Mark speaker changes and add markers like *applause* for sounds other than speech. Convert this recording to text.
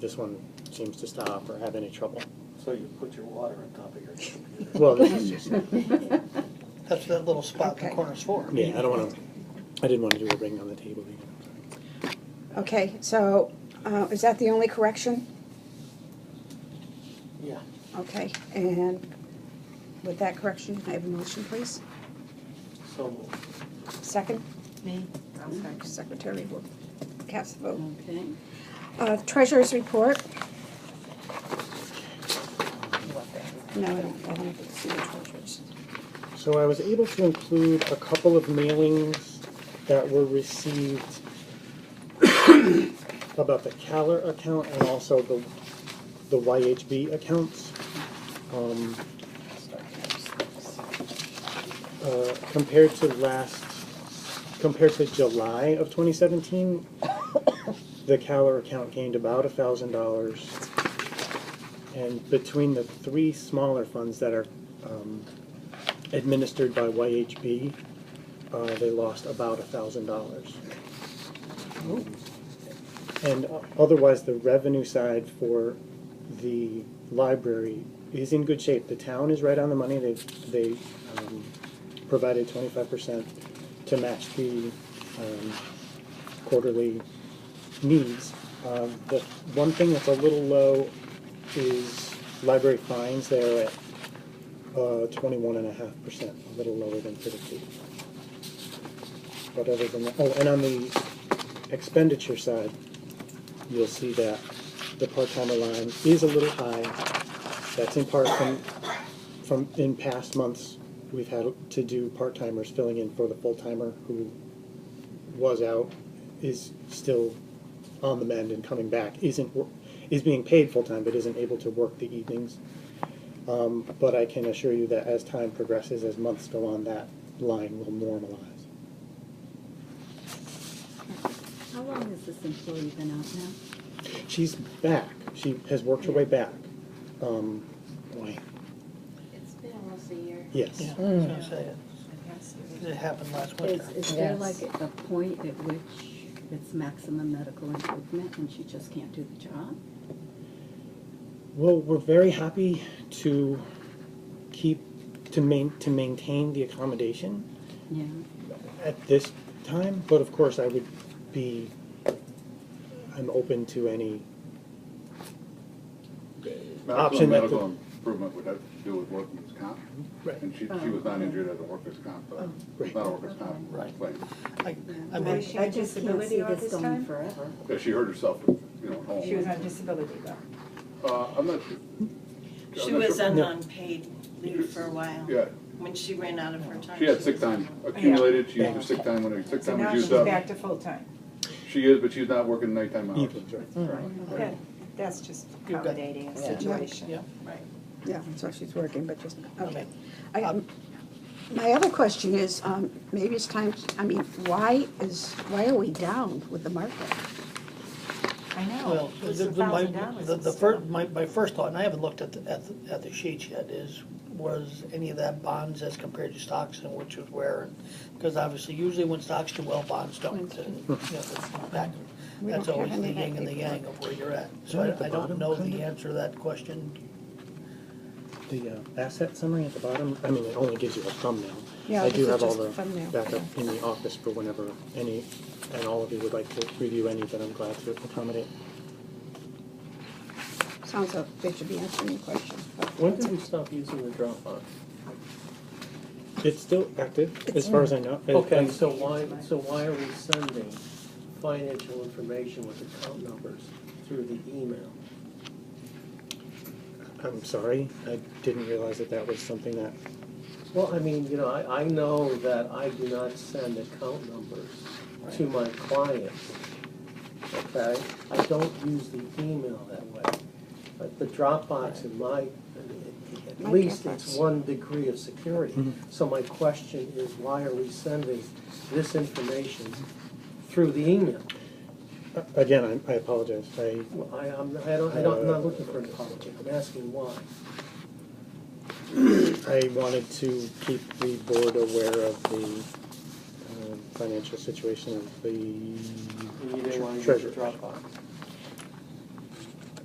Speaker 1: This one seems to stop or have any trouble.
Speaker 2: So you put your water on top of your computer.
Speaker 1: Well, this is just,
Speaker 3: *laughs*
Speaker 4: That's that little spot in the
Speaker 5: Okay.
Speaker 4: corner's for.
Speaker 1: yeah, I don't wanna, I didn't wanna do a ring on the table either.
Speaker 5: Okay, so, uh, is that the only correction?
Speaker 2: Yeah.
Speaker 5: Okay, and with that correction, I have a motion, please.
Speaker 2: So moved.
Speaker 5: Second,
Speaker 6: Me? I'll second.
Speaker 5: Secretary will cast the vote.
Speaker 6: Okay.
Speaker 5: Uh, Treasurer's report. No, I don't, I don't see the treasurer's.
Speaker 1: So I was able to include a couple of mailings that were received about the Caler account and also the, the YHB accounts. Um, uh, compared to last, compared to July of twenty seventeen, the Caler account gained about a thousand dollars. And between the three smaller funds that are, um, administered by YHB, uh, they lost about a thousand dollars. And o- otherwise, the revenue side for the library is in good shape. The town is right on the money. They, they, um, provided twenty-five percent to match the, um, quarterly needs. Um, the one thing that's a little low is library fines. They're at uh, twenty-one and a half percent, a little lower than predicted. But other than that, oh, and on the expenditure side, you'll see that the part-timer line is a little high. That's in part from, from, in past months, we've had to do part-timers filling in for the full-timer who was out, is still on the mend and coming back, isn't, wor- is being paid full-time but isn't able to work the evenings. Um, but I can assure you that as time progresses, as months go on, that line will normalize.
Speaker 6: How long has this employee been out now?
Speaker 1: She's back. She has worked her way back. Um, boy,
Speaker 7: It's been almost a year.
Speaker 1: yes.
Speaker 4: Yeah, I
Speaker 3: Mm.
Speaker 4: was gonna say, it-
Speaker 7: Yes.
Speaker 4: it happened last
Speaker 6: Is,
Speaker 4: winter.
Speaker 6: is there
Speaker 8: Yes.
Speaker 6: like a point at which it's maximum medical improvement and she just can't do the job?
Speaker 1: Well, we're very happy to keep to main to maintain the accommodation.
Speaker 6: Yeah,
Speaker 1: at this time, but of course I would be, I'm open to any, Option
Speaker 9: Medical,
Speaker 1: that
Speaker 9: medical
Speaker 1: the-
Speaker 9: improvement would have to do with workers' comp.
Speaker 1: Right.
Speaker 9: And she, she was not injured at a workers' comp, uh,
Speaker 1: Right.
Speaker 9: not a workers' comp
Speaker 4: Right.
Speaker 9: claim.
Speaker 4: I,
Speaker 6: yeah.
Speaker 4: I
Speaker 6: I
Speaker 4: mean,
Speaker 8: she
Speaker 6: I
Speaker 8: on
Speaker 6: just can't
Speaker 8: disability
Speaker 6: see
Speaker 8: all
Speaker 6: this
Speaker 8: this
Speaker 6: going
Speaker 8: time?
Speaker 6: forever.
Speaker 9: Yeah, she hurt herself, you know, at home.
Speaker 8: She was on disability though.
Speaker 9: Uh, I'm not.
Speaker 7: She
Speaker 9: I'm not
Speaker 7: was
Speaker 9: sure.
Speaker 7: on
Speaker 1: No.
Speaker 7: unpaid leave for a while,
Speaker 9: Yeah,
Speaker 7: when she ran out of her time.
Speaker 9: she had sick time accumulated, she used her sick time when her sick
Speaker 8: So
Speaker 9: time was
Speaker 8: now she's
Speaker 9: used up.
Speaker 8: back to full-time.
Speaker 9: She is, but she's not working nighttime hours.
Speaker 1: evenings, right?
Speaker 8: That- That's just
Speaker 4: got-
Speaker 8: accommodating a
Speaker 4: yeah.
Speaker 8: situation.
Speaker 4: yeah,
Speaker 5: Yeah, so she's working, but just, okay.
Speaker 4: Okay.
Speaker 5: I, um, my other question is, um, maybe it's time, I mean, why is, why are we down with the market?
Speaker 8: I
Speaker 4: well,
Speaker 8: know, it's
Speaker 4: the-
Speaker 8: a
Speaker 4: the- my,
Speaker 8: thousand dollars.
Speaker 4: the, the first, my, my first thought, and I haven't looked at, the- at, the- at the sheets yet, is, was any of that bonds as compared to stocks and which was where? Because obviously, usually when stocks do well, bonds don't, and, you know, that's back,
Speaker 5: We
Speaker 4: that's
Speaker 5: don't have
Speaker 4: always the
Speaker 5: any of that
Speaker 4: yin and the
Speaker 5: paperwork.
Speaker 4: yang of where you're at. So
Speaker 1: Down at the
Speaker 4: I, I
Speaker 1: bottom,
Speaker 4: don't know
Speaker 1: kind of?
Speaker 4: the answer to that question.
Speaker 1: The uh, asset summary at the bottom, I mean, it only gives you a thumbnail.
Speaker 5: Yeah,
Speaker 1: I
Speaker 5: this
Speaker 1: do
Speaker 5: is
Speaker 1: have all
Speaker 5: just
Speaker 1: the
Speaker 5: a thumbnail,
Speaker 1: backup in the office for whenever any, and all of you would like to review any that I'm glad to accommodate.
Speaker 5: Sounds like they should be answering your question. but-
Speaker 3: When did we stop using the Dropbox?
Speaker 1: It's still active, as far as I know. It-
Speaker 3: Okay,
Speaker 1: and-
Speaker 3: so why, so why are we sending financial information with account numbers through the email?
Speaker 1: I'm sorry, I didn't realize that that was something that,
Speaker 3: Well, I mean, you know, I, I know that I do not send account numbers to my clients, okay? I don't use the email that way. But the Dropbox in my,
Speaker 5: My
Speaker 3: at least it's
Speaker 5: Dropbox.
Speaker 3: one degree of security. So my question is, why are we sending this information through the email?
Speaker 1: uh, again, I I apologize. I
Speaker 3: Well, I, I'm, I don't, I don't, I'm not looking for an apology, I'm asking why.
Speaker 1: I wanted to keep the board aware of the um, financial situation of
Speaker 3: You didn't want
Speaker 1: the
Speaker 3: to use the
Speaker 1: treasurer.
Speaker 3: Dropbox.